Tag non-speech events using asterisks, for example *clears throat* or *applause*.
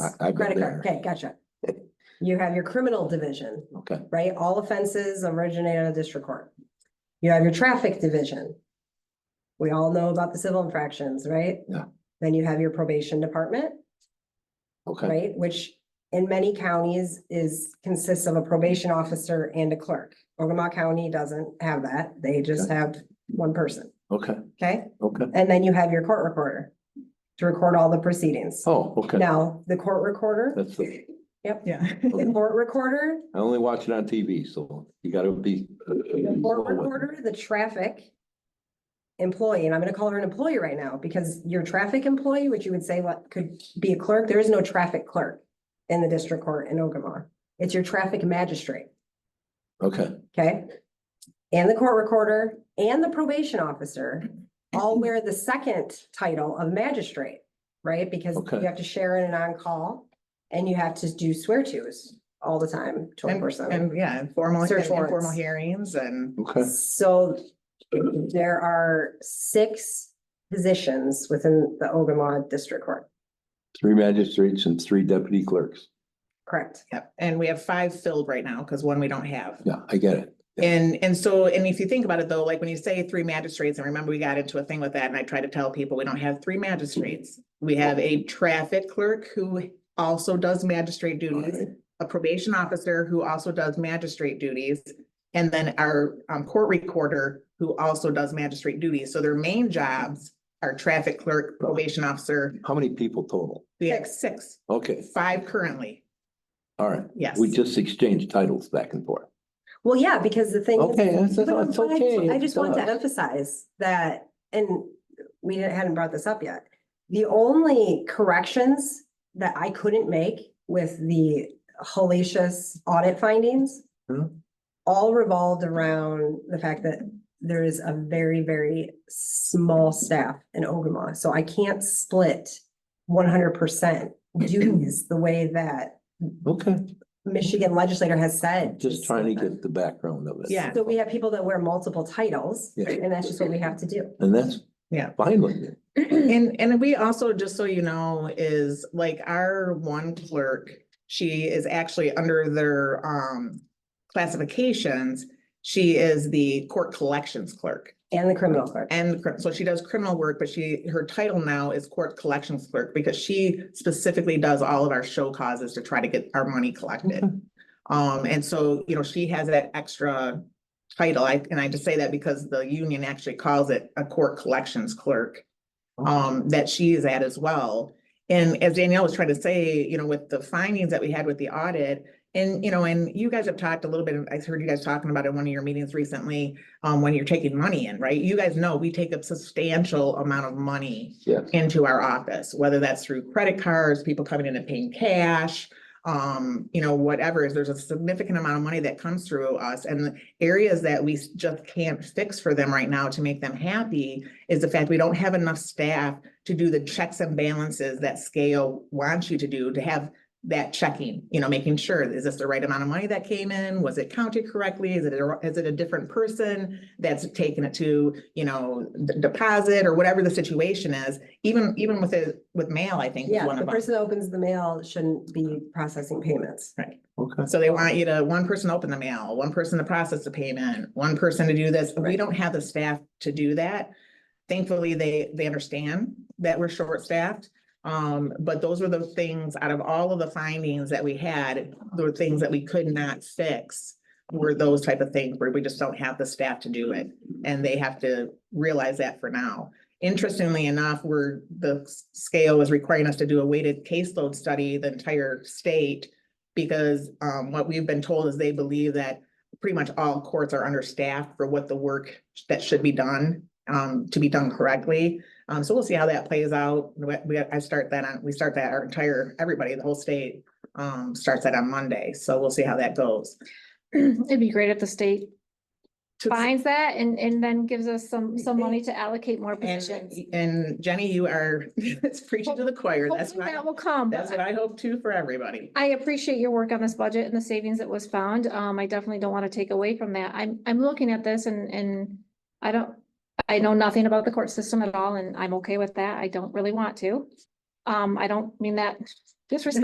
I- I've been Credit card, there. okay, gotcha. You have your criminal division, Okay, right? All offenses originate out of district court. You have your traffic division. We all know about the civil infractions, right? Yeah. Then you have your probation department, okay, right? Which in many counties is, consists of a probation officer and a clerk. Ogama County doesn't have that. They just have one person, okay, okay? okay. And then you have your court recorder to record all the proceedings. Oh, okay. Now, the court recorder, That's, the- yep, Yeah. the court recorder, I only watch it on TV, so you gotta be. the court recorder, the traffic employee, and I'm gonna call her an employee right now, because your traffic employee, which you would say what could be a clerk, there is no traffic clerk in the district court in Ogama. It's your traffic magistrate, Okay, okay? And the court recorder and the probation officer all wear the second title of magistrate, right? Because Okay. you have to share in an on-call and you have to do swear tos all the time, And, twenty-four seven. and, yeah, informal, Search informal warrants. hearings and okay, So there are six positions within the Ogama District Court, three magistrates and three deputy clerks. correct? Yep, and we have five filled right now because one we don't have. Yeah, I get it. And, and so, and if you think about it though, like when you say three magistrates, and remember we got into a thing with that and I try to tell people, we don't have three magistrates. We have a traffic clerk who also does magistrate duties, Alright. a probation officer who also does magistrate duties. And then our um, court recorder who also does magistrate duties. So their main jobs are traffic clerk, probation officer. How many people total? We have six, Okay, five currently. all right. Yes. We just exchanged titles back and forth. Well, yeah, because the thing. is- Okay, that's- that's But I- okay, I just want to duh. emphasize that, and we didn't- hadn't brought this up yet. The only corrections that I couldn't make with the hellacious audit findings Hmm. all revolved around the fact that there is a very, very small staff in Ogama, so I can't split one hundred percent duties the way that Okay, Michigan legislator has said. just trying to get the background of it. Yeah. So we have people that wear multiple titles, Yeah. and that's just what we have to do. And that's. Yeah. Fine with me. And, and we also, just so you know, is like our one clerk, she is actually under their, um, classifications. She is the court collections clerk And the criminal clerk. and cr- so she does criminal work, but she, her title now is court collections clerk because she specifically does all of our show causes to try to get our money collected. Okay. Um, and so, you know, she has that extra title. I, and I just say that because the union actually calls it a court collections clerk. Um, that she is at as well. And as Danielle was trying to say, you know, with the findings that we had with the audit. And, you know, and you guys have talked a little bit, I heard you guys talking about it in one of your meetings recently, um, when you're taking money in, right? You guys know we take a substantial amount of money Yeah. into our office, whether that's through credit cards, people coming in and paying cash. Um, you know, whatever, there's a significant amount of money that comes through us and the areas that we s- just can't fix for them right now to make them happy is the fact we don't have enough staff to do the checks and balances that scale wants you to do to have that checking, you know, making sure, is this the right amount of money that came in? Was it counted correctly? Is it, a- is it a different person that's taking it to, you know, d- deposit or whatever the situation is? Even, even with it, with mail, I think. is Yeah, one the of them. person that opens the mail shouldn't be processing payments. Okay, So they want you to, one person open the mail, one person to process the payment, one person to do this. We Right. don't have the staff to do that. Thankfully, they, they understand that we're short-staffed. Um, but those were the things, out of all of the findings that we had, there were things that we could not fix were those type of things where we just don't have the staff to do it. And they have to realize that for now. Interestingly enough, we're, the s- scale is requiring us to do a weighted caseload study, the entire state because um what we've been told is they believe that pretty much all courts are understaffed for what the work that should be done um to be done correctly. Um so we'll see how that plays out. We we- I start that on, we start that our entire, everybody, the whole state um starts that on Monday. So we'll see how that goes. *clears throat* It'd be great if the state To- finds that and, and then gives us some, some money to allocate more And positions. and Jenny, you are *laughs* it's preaching to the choir. That's Hopefully what that I, will come. that's what I hope too for everybody. I appreciate your work on this budget and the savings that was found. Um, I definitely don't want to take away from that. I'm, I'm looking at this and, and I don't, I know nothing about the court system at all and I'm okay with that. I don't really want to. Um, I don't mean that disrespectfully.